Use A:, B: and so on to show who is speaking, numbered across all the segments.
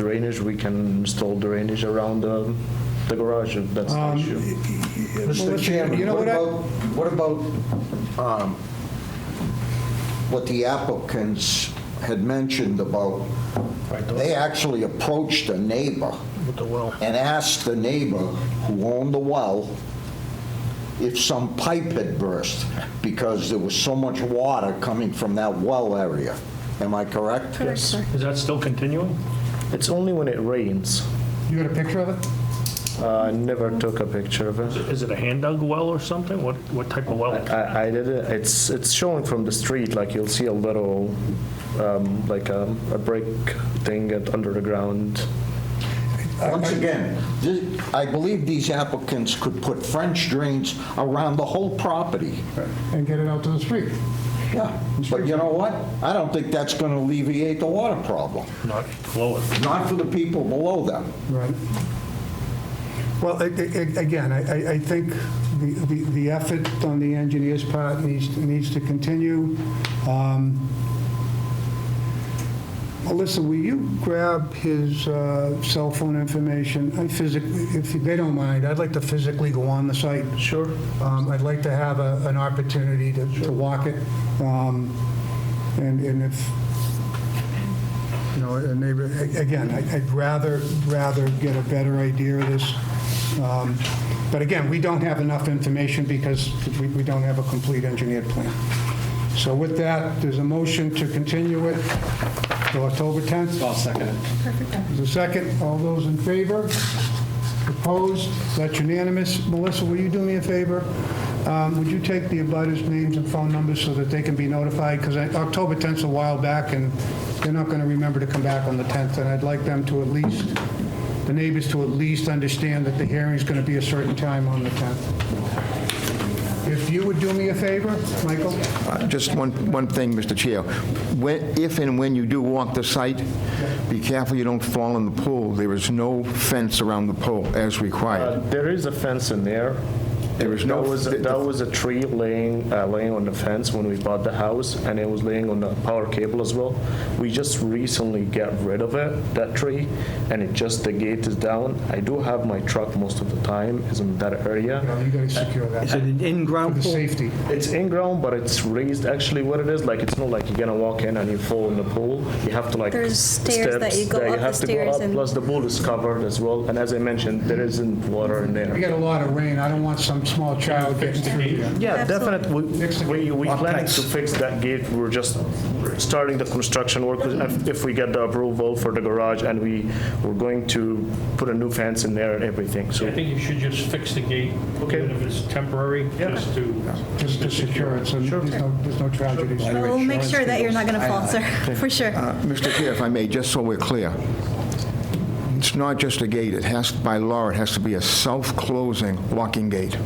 A: drainage, we can install drainage around the, the garage if that's the issue.
B: Mr.
C: let's-
B: Chairman,
C: you know
B: what
C: what I-
B: about, what about um, what the applicants had mentioned about, they actually approached a neighbor
C: With the well.
B: and asked the neighbor who owned the well if some pipe had burst because there was so much water coming from that well area. Am I correct? Yes.
D: Is that still continuing?
A: It's only when it rains.
C: You got a picture of it?
A: Uh, I never took a picture of it.
D: Is it a hand dug well or something? What, what type of well?
A: I, I did it, it's, it's showing from the street, like you'll see a little, um, like a, a brick thing at- under the ground.
B: Once again, this- I believe these applicants could put French drains around the whole property.
C: And get it out to the street.
B: Yeah, but you know what? I don't think that's going to alleviate the water problem,
D: Not lower.
B: not for the people below them.
C: Right. Well, a- a- a- again, I, I- I think the, the the effort on the engineer's part needs, needs to continue. Um, Melissa, will you grab his uh, cell phone information? I physically, if they don't mind, I'd like to physically go on the site. Sure. I'd like to have a- an opportunity to to walk it. Um, And and if, you know, a neighbor, a- again, I- I'd rather, rather get a better idea of this. Um, But again, we don't have enough information because we we don't have a complete engineered plan. So with that, there's a motion to continue it to October 10th.
E: I'll second it.
C: There's a second. All those in favor? Opposed? That's unanimous. Melissa, will you do me a favor? Um, Would you take the abutters' names and phone numbers so that they can be notified? Because October 10th's a while back, and they're not going to remember to come back on the 10th, and I'd like them to at least, the neighbors to at least understand that the hearing's going to be a certain time on the 10th. If you would do me a favor, Michael?
F: Uh, Just one, one thing, Mr. Chair. When, if and when you do walk the site, be careful you don't fall in the pool. There is no fence around the pool as
A: Uh,
F: required.
A: There is a fence in there.
F: There is no-
A: That was, a- that was a tree laying, uh, laying on the fence when we bought the house, and it was laying on the power cable as well. We just recently got rid of it, that tree, and it just, the gate is down. I do have my truck most of the time, is in that area.
C: No, You got to secure that
E: Is it an
C: for
E: in-ground
C: the
E: pool?
C: safety.
A: It's in ground, but it's raised. Actually, what it is like, it's not like you're gonna walk in and you fall in the pool. You have to like
G: There's stairs that
A: steps
G: you go up the
A: have to go
G: stairs
A: up,
G: and-
A: Plus, the pool is covered as well. And as I mentioned, there isn't water in
C: We
A: there.
C: got a lot of rain. I don't want some small child getting through there.
A: Yeah,
G: Absolutely.
A: definitely. We, we, we planning to fix that gate. We're just starting the construction work. If- If we get the approval for the garage, and we we're going to put a new fence in there and everything. So
H: I think you should just fix the gate,
A: Okay.
H: even if it's temporary, just to.
C: just to secure it, so there's no, there's no tragedies.
G: Well, We'll make sure that you're not going to fall, sir, for sure.
F: Uh, Mr. Chair, if I may, just so we're clear, it's not just a gate. It has, by law, it has to be a self-closing locking gate.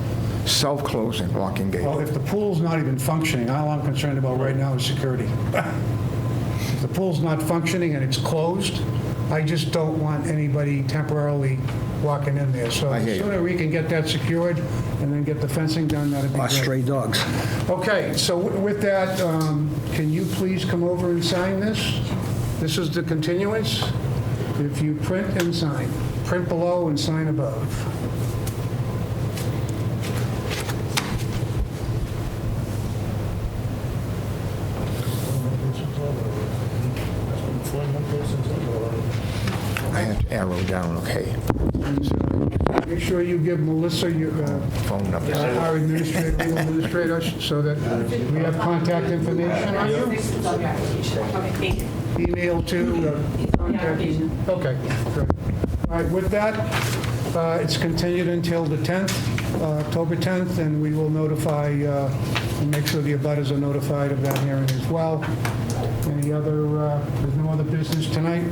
F: Self-closing locking gate.
C: Well, if the pool's not even functioning, all I'm concerned about right now is security. If the pool's not functioning and it's closed, I just don't want anybody temporarily walking in there. So
F: hear
C: the
F: you.
C: sooner we can get that secured and then get the fencing done, that'd be
E: Or
C: great.
E: stray dogs?
C: Okay, so wi- with that, um, can you please come over and sign this? This is the continuance. If you print and sign, print below and sign above.
F: I have to arrow down, okay.
C: And so Make sure you give Melissa your, uh,
F: Phone number.
C: our administrator, legal administrator, so that we have contact information on you.
I: It's on your application. Okay, thank you.
C: Email to, uh, contact. Okay, great. All right, with that, uh, it's continued until the 10th, uh, October 10th, and we will notify, uh, and make sure the abutters are notified of that hearing as well. Any other, uh, there's no other business tonight?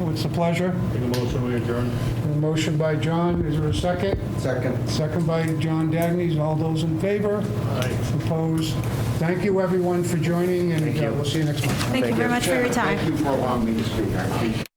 C: What's the pleasure?
H: Make a motion, we adjourn.
C: A motion by John, is there a second? Second. Second by John Dagnes, all those in favor? Aye. Opposed? Thank you, everyone, for joining, and uh, we'll see you next month.
G: Thank you very much for your time.
B: Thank you for allowing me to speak. I appreciate it.